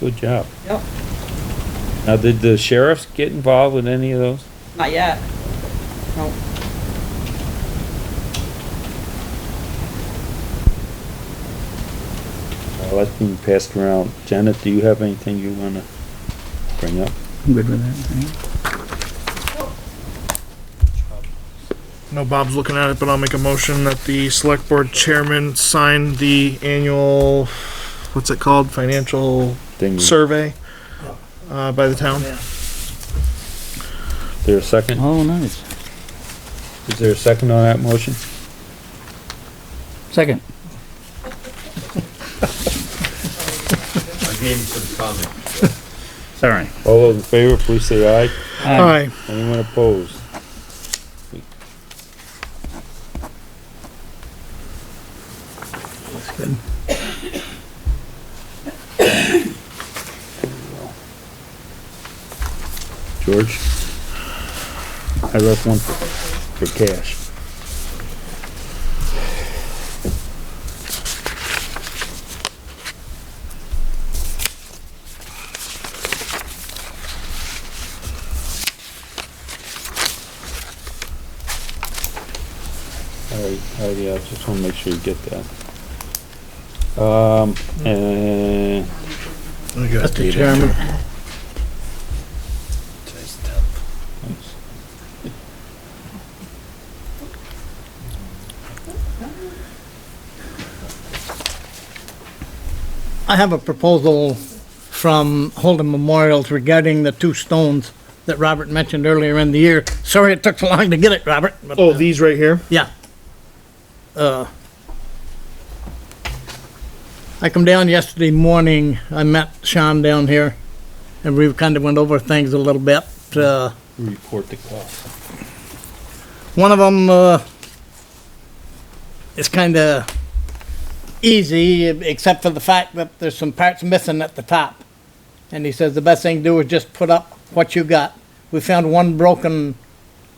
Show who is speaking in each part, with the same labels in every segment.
Speaker 1: Good job.
Speaker 2: Yep,
Speaker 1: Now, did the sheriffs get involved with any of those?
Speaker 2: not yet. Nope.
Speaker 1: Well, that's being passed around. Janet, do you have anything you wanna bring up?
Speaker 3: I'm good with that.
Speaker 4: No, Bob's looking at it, but I'll make a motion that the select board chairman sign the annual, what's it called, financial
Speaker 1: Thing,
Speaker 4: survey uh, by the town.
Speaker 1: there a second?
Speaker 3: Oh, nice.
Speaker 1: Is there a second on that motion?
Speaker 3: Second.
Speaker 5: I gave him some comment.
Speaker 3: Sorry.
Speaker 1: All those in favor, please say aye.
Speaker 4: Aye.
Speaker 1: Anyone opposed? George? I left one for, for cash. Alright, alright, yeah, just wanna make sure you get that. Um, and
Speaker 4: Mr. Chairman.
Speaker 6: I have a proposal from Holden Memorials regarding the two stones that Robert mentioned earlier in the year. Sorry it took so long to get it, Robert. but- uh,
Speaker 4: Oh, these right here?
Speaker 6: Yeah. Uh, I come down yesterday morning, I met Sean down here, and we kind of went over things a little bit. Uh,
Speaker 1: report the cost.
Speaker 6: One of them uh, is kind of easy, except for the fact that there's some parts missing at the top. And he says the best thing to do is just put up what you got. We found one broken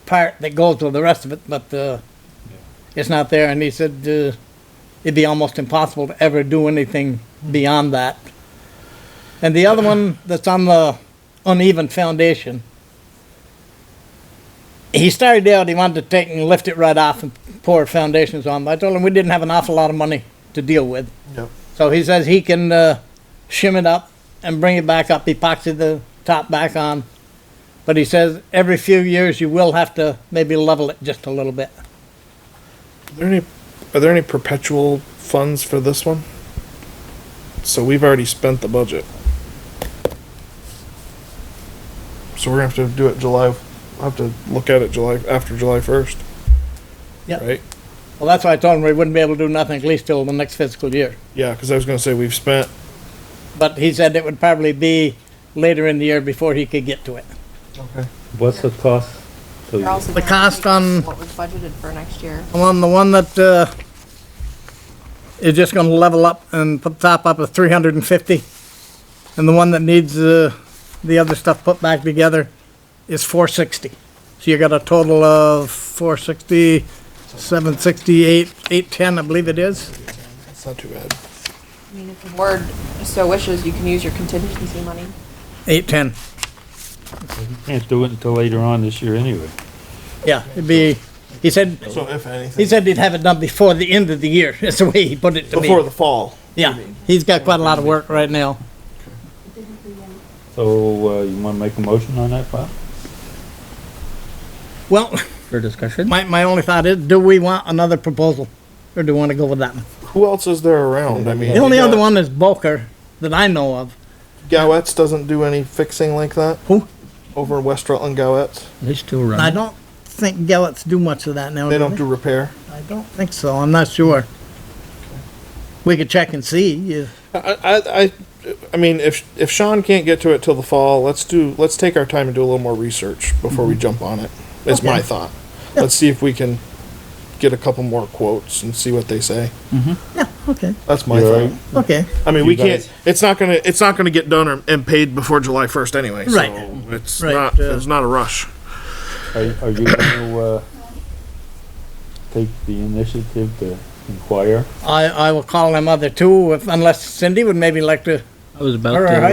Speaker 6: part that goes with the rest of it, but uh, it's not there. And he said uh, it'd be almost impossible to ever do anything beyond that. And the other one that's on the uneven foundation he started out, he wanted to take and lift it right off and pour foundations on. But I told him we didn't have an awful lot of money to deal with.
Speaker 4: Yep.
Speaker 6: So he says he can uh, shim it up and bring it back up, epoxy the top back on. But he says every few years you will have to maybe level it just a little bit.
Speaker 4: Are there any, are there any perpetual funds for this one? So we've already spent the budget. So we're gonna have to do it July, I'll have to look at it July, after July first.
Speaker 6: Yep.
Speaker 4: Right?
Speaker 6: Well, that's why I told him we wouldn't be able to do nothing at least till the next fiscal year.
Speaker 4: Yeah, cause I was gonna say we've spent,
Speaker 6: But he said it would probably be later in the year before he could get to it.
Speaker 1: What's the cost? So
Speaker 7: They're also
Speaker 6: The
Speaker 7: guaranteed
Speaker 6: cost on-
Speaker 7: What was budgeted for next year.
Speaker 6: On the one that uh, is just going to level up and put top up of 350, and the one that needs uh, the other stuff put back together is 460. So you got a total of 460, 768, 810, I believe it is.
Speaker 4: it's not too bad.
Speaker 7: I mean, if the board so wishes, you can use your contingency money.
Speaker 6: 810,
Speaker 1: you Can't do it until later on this year anyway.
Speaker 6: yeah, it'd be, he said,
Speaker 4: So if anything.
Speaker 6: he said he'd have it done before the end of the year, that's the way he put it to me.
Speaker 4: Before the fall.
Speaker 6: Yeah, he's got quite a lot of work right now.
Speaker 1: So, uh, you wanna make a motion on that, Bob?
Speaker 6: Well,
Speaker 3: For discussion?
Speaker 6: my, my only thought is, do we want another proposal, or do we want to go with that one?
Speaker 4: Who else is there around? I mean.
Speaker 6: The only other one is Boker that I know of.
Speaker 4: Gowetts doesn't do any fixing like that.
Speaker 6: Who?
Speaker 4: Over in West Rutland Gowetts.
Speaker 3: They still
Speaker 6: I
Speaker 3: run.
Speaker 6: don't think Gillett's do much of that now.
Speaker 4: They don't do repair.
Speaker 6: I don't think so. I'm not sure. We could check and see. if-
Speaker 4: I, I, I, I mean, if if Sean can't get to it till the fall, let's do let's take our time and do a little more research before
Speaker 6: Mm-hmm.
Speaker 4: we jump on it. Is my thought. Let's see if we can get a couple more quotes and see what they say.
Speaker 6: Yeah, okay,
Speaker 4: That's my
Speaker 1: You all
Speaker 4: thought.
Speaker 1: right?
Speaker 6: okay.
Speaker 4: I mean,
Speaker 1: You
Speaker 4: we
Speaker 1: guys-
Speaker 4: can't. It's not gonna. It's not gonna get done or, and paid before July first anyway. So
Speaker 6: Right.
Speaker 4: It's
Speaker 6: Right,
Speaker 4: not.
Speaker 6: uh,
Speaker 4: it's not a rush.
Speaker 1: Are, are you gonna, uh, take the initiative to inquire?
Speaker 6: I, I will call them other two, if- unless Cindy would maybe like to
Speaker 3: I was about
Speaker 6: All right.
Speaker 3: to.